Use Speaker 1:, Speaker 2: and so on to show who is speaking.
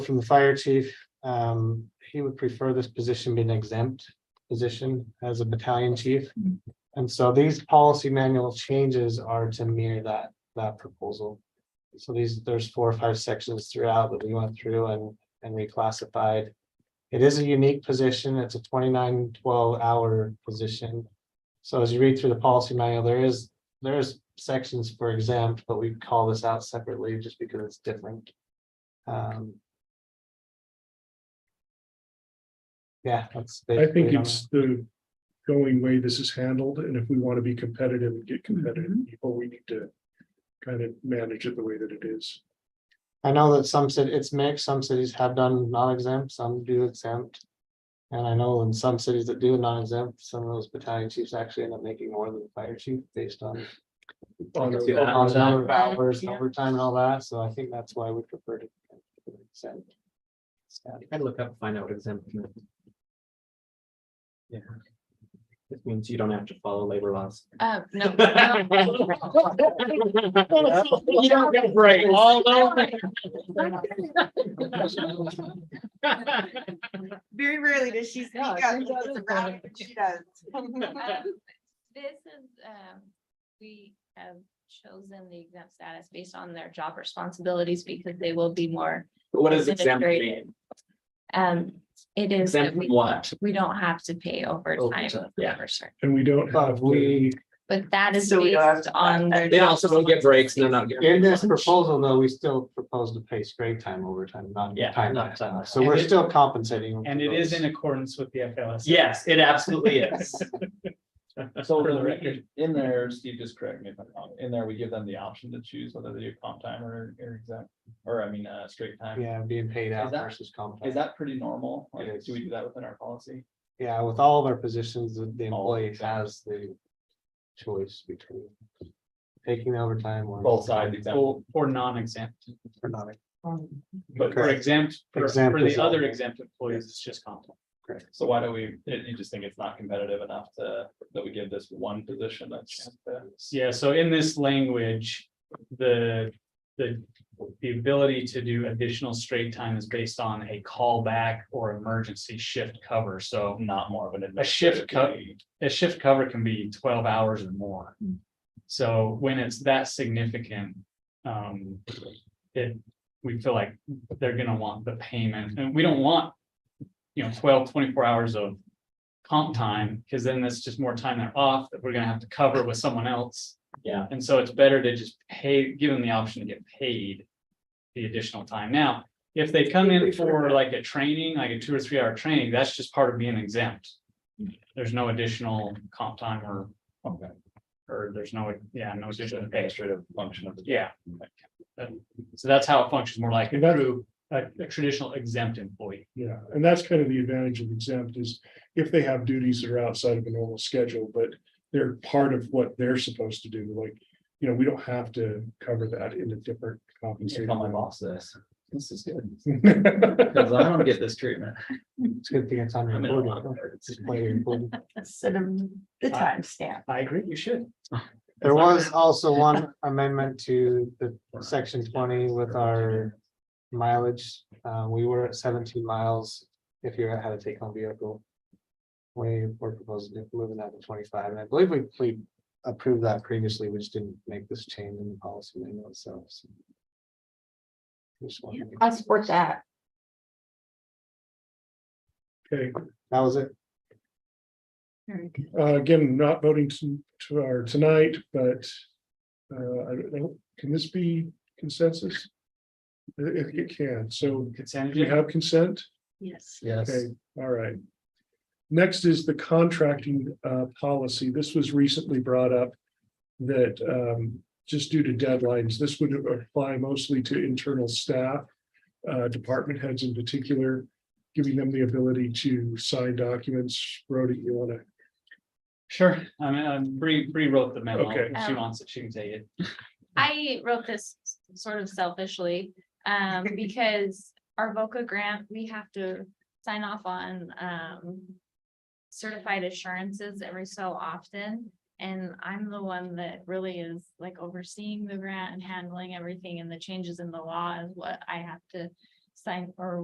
Speaker 1: from the fire chief, um, he would prefer this position be an exempt position as a battalion chief. And so these policy manual changes are to mirror that, that proposal. So these, there's four or five sections throughout that we went through and, and reclassified. It is a unique position. It's a 29 12 hour position. So as you read through the policy manual, there is, there's sections for exempt, but we call this out separately just because it's different. Um, Yeah, that's.
Speaker 2: I
Speaker 1: basically
Speaker 2: think
Speaker 1: it on
Speaker 2: it's the going way this is handled, and if we want to be competitive and get competitive
Speaker 3: Mm-hmm.
Speaker 2: people, we need to kind of manage it the way that it is.
Speaker 1: I know that some cit it's mixed, some cities have done non-exempt, some do exempt. And I know in some cities that do non-exempt, some of those battalion chiefs actually end up making more than the fire chief based on.
Speaker 2: On
Speaker 4: see
Speaker 2: a-
Speaker 4: that.
Speaker 1: on the number of
Speaker 4: Overtime.
Speaker 1: hours,
Speaker 4: Yeah.
Speaker 1: overtime and all that, so I think that's why we prefer to. exempt.
Speaker 4: I'd look up, find out what exempt. meant. Yeah. This means you don't have to follow labor laws.
Speaker 5: Um, no.
Speaker 4: You don't get a break. All
Speaker 6: Very rarely does she speak
Speaker 5: Yeah,
Speaker 6: up.
Speaker 5: she
Speaker 6: when
Speaker 5: does.
Speaker 6: it's around, but She does.
Speaker 5: Um, This is, um, we have chosen the exempt status based on their job responsibilities because they will be more,
Speaker 4: What does exempt
Speaker 5: Administrative.
Speaker 4: mean?
Speaker 5: um, it is that
Speaker 4: Exempt from
Speaker 5: we,
Speaker 4: what?
Speaker 5: we don't have to pay overtime.
Speaker 4: Overtime, yeah.
Speaker 5: for certain-
Speaker 2: And we don't have
Speaker 1: But
Speaker 2: to,
Speaker 1: we,
Speaker 5: But that is
Speaker 6: So we don't have
Speaker 5: based
Speaker 6: to-
Speaker 5: on their.
Speaker 4: They
Speaker 5: job
Speaker 4: also don't get breaks and they're not getting.
Speaker 1: in this proposal, though, we still propose to pay straight time overtime, not
Speaker 4: Yeah,
Speaker 1: time.
Speaker 4: not uh,
Speaker 1: and a half.
Speaker 4: time.
Speaker 1: So we're
Speaker 3: And it-
Speaker 1: still compensating.
Speaker 3: And it
Speaker 1: for
Speaker 3: is in
Speaker 1: those.
Speaker 3: accordance with the FLS.
Speaker 4: Yes, it absolutely is.
Speaker 7: So
Speaker 3: For the
Speaker 7: we-
Speaker 3: record.
Speaker 7: in there, Steve, just correct me if I'm wrong, in there, we give them the option to choose whether they do comp time or, or exact, or I mean, uh, straight time.
Speaker 1: Yeah, being paid out
Speaker 7: Is that-
Speaker 1: versus comp.
Speaker 7: Is
Speaker 1: time.
Speaker 7: that pretty normal?
Speaker 1: It
Speaker 7: Like,
Speaker 1: is.
Speaker 7: do we do that within our policy?
Speaker 1: Yeah, with all of our positions, the the
Speaker 7: All of
Speaker 1: employee has the choice between taking the overtime or.
Speaker 7: Both sides, exactly.
Speaker 3: Or, or non-exempt,
Speaker 1: Or not.
Speaker 3: but for
Speaker 1: Correct.
Speaker 3: exempt, for,
Speaker 1: Exempt
Speaker 3: for
Speaker 1: is
Speaker 3: the
Speaker 1: all.
Speaker 3: other exempt employees, it's just comp.
Speaker 7: So why do we, you you just think it's not competitive enough to, that we give this one position that's.
Speaker 3: Yeah, so in this language, the, the, the ability to do additional straight time is based on a callback or emergency shift cover. So
Speaker 7: Not more of an.
Speaker 3: A shift cut.
Speaker 7: administrative
Speaker 3: a shift cover can be twelve hours or more.
Speaker 7: Hmm.
Speaker 3: So when it's that significant, um, it, we feel like they're gonna want the payment, and we don't want. You know, 12, 24 hours of comp time, because then that's just more time they're off that we're gonna have to cover with someone else.
Speaker 4: Yeah.
Speaker 3: And so it's better to just pay, give them the option to get paid the additional time. Now, if they come in for like a training, like a two or three hour training, that's just part of being exempt. There's no additional comp time or,
Speaker 7: Okay.
Speaker 3: or there's no, yeah, no additional pay.
Speaker 7: Administrative function of the.
Speaker 3: Yeah. Um, So that's how it functions, more like a
Speaker 2: And that's-
Speaker 3: true, a, a traditional exempt employee.
Speaker 2: yeah, and that's kind of the advantage of exempt is if they have duties that are outside of a normal schedule, but they're part of what they're supposed to do, like, you know, we don't have to cover that in a different
Speaker 7: You should
Speaker 2: compensation.
Speaker 7: tell my boss this. This is good.
Speaker 2: But
Speaker 7: Because I don't get this treatment.
Speaker 1: It's a good thing it's on
Speaker 7: I'm in a lot
Speaker 3: uh,
Speaker 1: recording.
Speaker 7: of it.
Speaker 1: It's player recording.
Speaker 6: Instead of the
Speaker 3: I-
Speaker 6: timestamp.
Speaker 3: I agree, you should.
Speaker 1: There was also one amendment to the section twenty with our mileage. Uh, we were at seventeen miles if you had a take home vehicle. We were proposing moving that to twenty-five, and I believe we, we approved that previously, we just didn't make this change in the policy manual itself. so. Just wanted to-
Speaker 6: I support that.
Speaker 2: Okay,
Speaker 1: That was it.
Speaker 6: Very good.
Speaker 2: uh, again, not voting to, to our tonight, but uh, I don't know, can this be consensus? It, it- it can, so
Speaker 3: Consent
Speaker 2: do you
Speaker 3: agenda.
Speaker 2: have consent?
Speaker 6: Yes.
Speaker 4: Yes.
Speaker 2: Okay, all right. Next is the contracting uh, policy. This was recently brought up that um, just due to deadlines, this would apply mostly to internal staff, uh, department heads in particular, giving them the ability to sign documents. Rhoda, you want to
Speaker 3: Sure, I mean, I Bree, Bree wrote the memo.
Speaker 2: Okay.
Speaker 3: She wants it, she can take it.
Speaker 5: I wrote this sort of selfishly, um, because our VOCA grant, we have to sign off on, um. Certified assurances every so often, and I'm the one that really is like overseeing the grant and handling everything and the changes in the law is what I have to. sign or